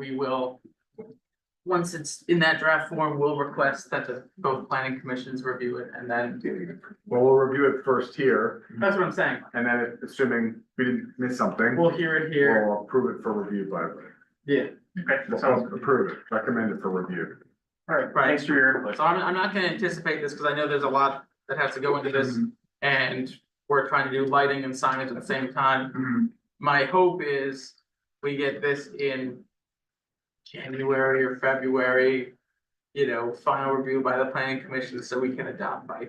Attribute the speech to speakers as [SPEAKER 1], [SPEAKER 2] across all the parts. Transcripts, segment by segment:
[SPEAKER 1] we will. Once it's in that draft form, we'll request that the both planning commissions review it and then,
[SPEAKER 2] Well, we'll review it first here,
[SPEAKER 1] that's what I'm saying,
[SPEAKER 2] and then if- assuming we didn't miss something,
[SPEAKER 1] we'll hear it here.
[SPEAKER 2] we'll approve it for review by the.
[SPEAKER 1] Yeah.
[SPEAKER 3] Okay, that sounds
[SPEAKER 2] We'll
[SPEAKER 3] good.
[SPEAKER 2] approve it, recommend it for review.
[SPEAKER 3] All right,
[SPEAKER 1] Right.
[SPEAKER 3] thanks for your input.
[SPEAKER 1] So I'm, I'm not gonna anticipate this, cause I know there's a lot that has to go into this,
[SPEAKER 3] Mm-hmm.
[SPEAKER 1] and we're trying to do lighting and signage at the same time.
[SPEAKER 3] Mhm.
[SPEAKER 1] My hope is we get this in January or February, you know, final review by the planning commission, so we can adopt by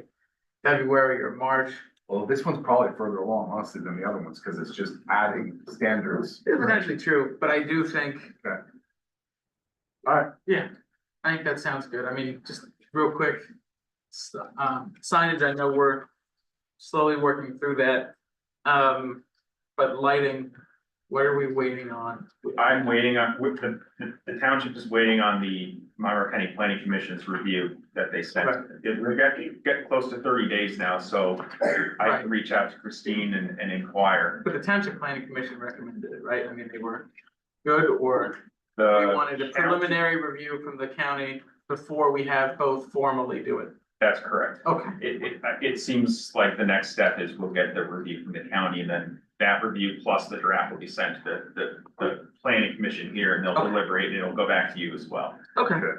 [SPEAKER 1] February or March.
[SPEAKER 2] Well, this one's probably further along honestly than the other ones, because it's just adding standards.
[SPEAKER 1] It's actually true, but I do think.
[SPEAKER 2] Okay. Alright.
[SPEAKER 1] Yeah, I think that sounds good. I mean, just real quick. s- Um, signage, I know we're slowly working through that. Um, but lighting, what are we waiting on?
[SPEAKER 3] I'm waiting on, with the, the- the township is waiting on the Monroe County Planning Commission's review that they sent.
[SPEAKER 1] Right.
[SPEAKER 3] It- We're getting, getting close to thirty days now, so I
[SPEAKER 1] Right.
[SPEAKER 3] can reach out to Christine and, and inquire.
[SPEAKER 1] But the township planning commission recommended it, right? I mean, they were good or they
[SPEAKER 3] The,
[SPEAKER 1] wanted a
[SPEAKER 3] Uh, county-
[SPEAKER 1] preliminary review from the county before we have both formally do it.
[SPEAKER 3] that's correct.
[SPEAKER 1] Okay,
[SPEAKER 3] It, it, it seems like the next step is we'll get the review from the county and then that review plus the draft will be sent to the, the, the planning commission here and they'll
[SPEAKER 1] Okay.
[SPEAKER 3] deliberate and it'll go back to you as well.
[SPEAKER 1] okay.
[SPEAKER 2] Good.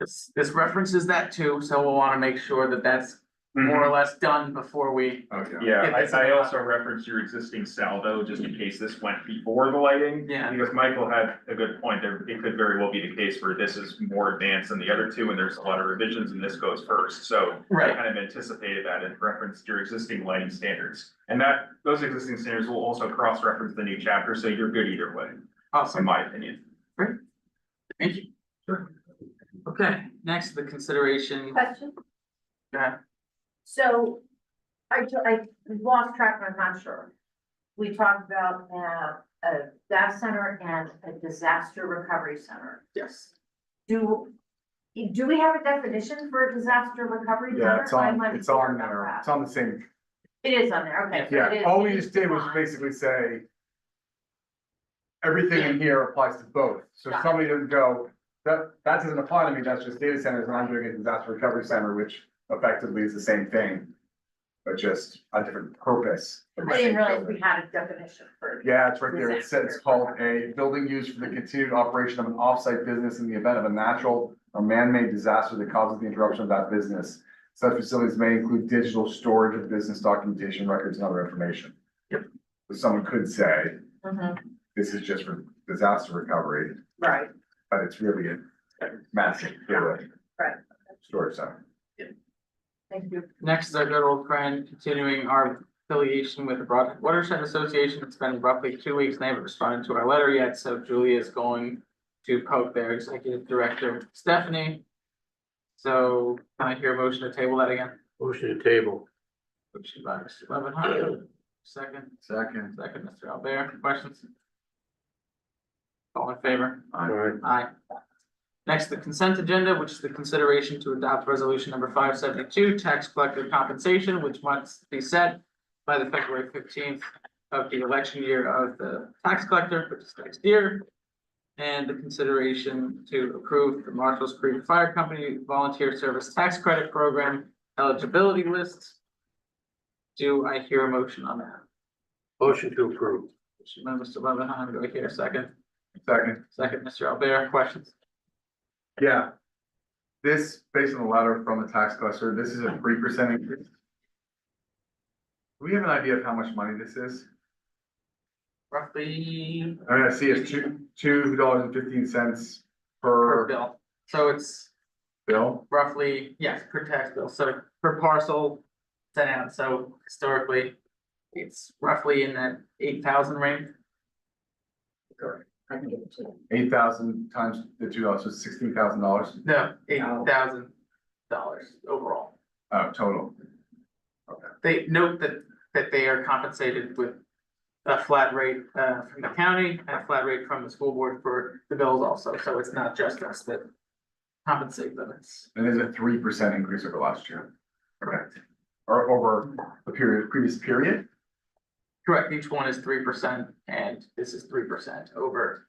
[SPEAKER 1] This, this references that too, so we'll wanna make sure that that's more
[SPEAKER 3] Mhm.
[SPEAKER 1] or less done before we.
[SPEAKER 2] Okay.
[SPEAKER 3] Yeah,
[SPEAKER 1] Yeah, that's-
[SPEAKER 3] I, I also referenced your existing salvo, just in case this went before the lighting.
[SPEAKER 1] Yeah.
[SPEAKER 3] Because Michael had a good point, there, it could very well be the case where this is more advanced than the other two, and there's a lot of revisions, and this goes first, so. I kind of anticipated that and referenced your existing lighting standards, and that, those existing standards will also cross-reference the new chapter, so you're good either way, in
[SPEAKER 1] Awesome,
[SPEAKER 3] my opinion.
[SPEAKER 1] thank you.
[SPEAKER 3] Sure.
[SPEAKER 1] Okay, next, the consideration,
[SPEAKER 4] Question,
[SPEAKER 1] yeah,
[SPEAKER 4] so I, ju- I lost track, and I'm not sure. We talked about uh, a DAS center and a disaster recovery center.
[SPEAKER 1] yes,
[SPEAKER 4] Do, do we have a definition for a disaster recovery center?
[SPEAKER 2] Yeah, it's
[SPEAKER 4] I
[SPEAKER 2] on,
[SPEAKER 4] might be
[SPEAKER 2] it's on
[SPEAKER 4] clear about
[SPEAKER 2] there,
[SPEAKER 4] that.
[SPEAKER 2] it's on the same,
[SPEAKER 4] It is on there, okay. so it
[SPEAKER 2] yeah,
[SPEAKER 4] is-
[SPEAKER 2] all
[SPEAKER 4] it
[SPEAKER 2] we
[SPEAKER 4] is
[SPEAKER 2] just did was
[SPEAKER 4] defined.
[SPEAKER 2] basically say. Everything in here applies to both, so if
[SPEAKER 4] Got it.
[SPEAKER 2] somebody doesn't go, that, that doesn't apply to me, that's just data centers, and I'm doing a disaster recovery center, which effectively is the same thing. But just a different purpose.
[SPEAKER 4] I didn't realize we had a definition for.
[SPEAKER 2] Yeah, it's right there. It says it's called a building used for the continued operation of an off-site business in the event of a natural or man-made disaster that causes the interruption of that business. Such facilities may include digital storage of business documentation, records, and other information.
[SPEAKER 1] Yep.
[SPEAKER 2] So Someone could say,
[SPEAKER 4] Mhm,
[SPEAKER 2] this is just for disaster recovery,
[SPEAKER 4] Right,
[SPEAKER 2] but it's really a massive, really.
[SPEAKER 4] Right.
[SPEAKER 2] Storage center.
[SPEAKER 4] thank you.
[SPEAKER 1] next is our good old friend, continuing our affiliation with the Broad Watershed Association, it's been roughly two weeks, they haven't responded to our letter yet, so Julie is going to poke their executive director, Stephanie. So, can I hear a motion to table that again?
[SPEAKER 5] Motion to table.
[SPEAKER 1] Motion by Mr. Levinheim, second,
[SPEAKER 2] Second.
[SPEAKER 1] second, Mr. Albert, questions? All in favor?
[SPEAKER 5] Alright,
[SPEAKER 1] Aye. Next, the consent agenda, which is the consideration to adopt resolution number five seventy-two, tax collector compensation, which must be set by the February fifteenth of the election year of the tax collector, which is next year. And the consideration to approve the Marshall's Creek Fire Company Volunteer Service Tax Credit Program eligibility list. Do I hear a motion on that?
[SPEAKER 5] motion to approve.
[SPEAKER 1] Motion by Mr. Levinheim, do I hear a second?
[SPEAKER 2] Second.
[SPEAKER 1] Second, Mr. Albert, questions?
[SPEAKER 2] Yeah. This, based on the letter from the tax collector, this is a three percent increase. Do we have an idea of how much money this is?
[SPEAKER 1] Roughly
[SPEAKER 2] I mean, I see it's two, two dollars and fifteen cents
[SPEAKER 1] per
[SPEAKER 2] per
[SPEAKER 1] bill, so it's
[SPEAKER 2] bill.
[SPEAKER 1] roughly, yes, per tax bill, so per parcel sent out, so historically. It's roughly in that eight thousand range,
[SPEAKER 2] Eight thousand times the two dollars, so sixteen thousand dollars,
[SPEAKER 1] no, eight thousand dollars overall.
[SPEAKER 2] uh, total.
[SPEAKER 1] They note that, that they are compensated with a flat rate, uh, from the county and a flat rate from the school board for the bills also, so it's not just us that compensate them, it's
[SPEAKER 2] And there's a three percent increase over last year,
[SPEAKER 1] correct.
[SPEAKER 2] or over the period, previous period.
[SPEAKER 1] Correct, each one is three percent and this is three percent over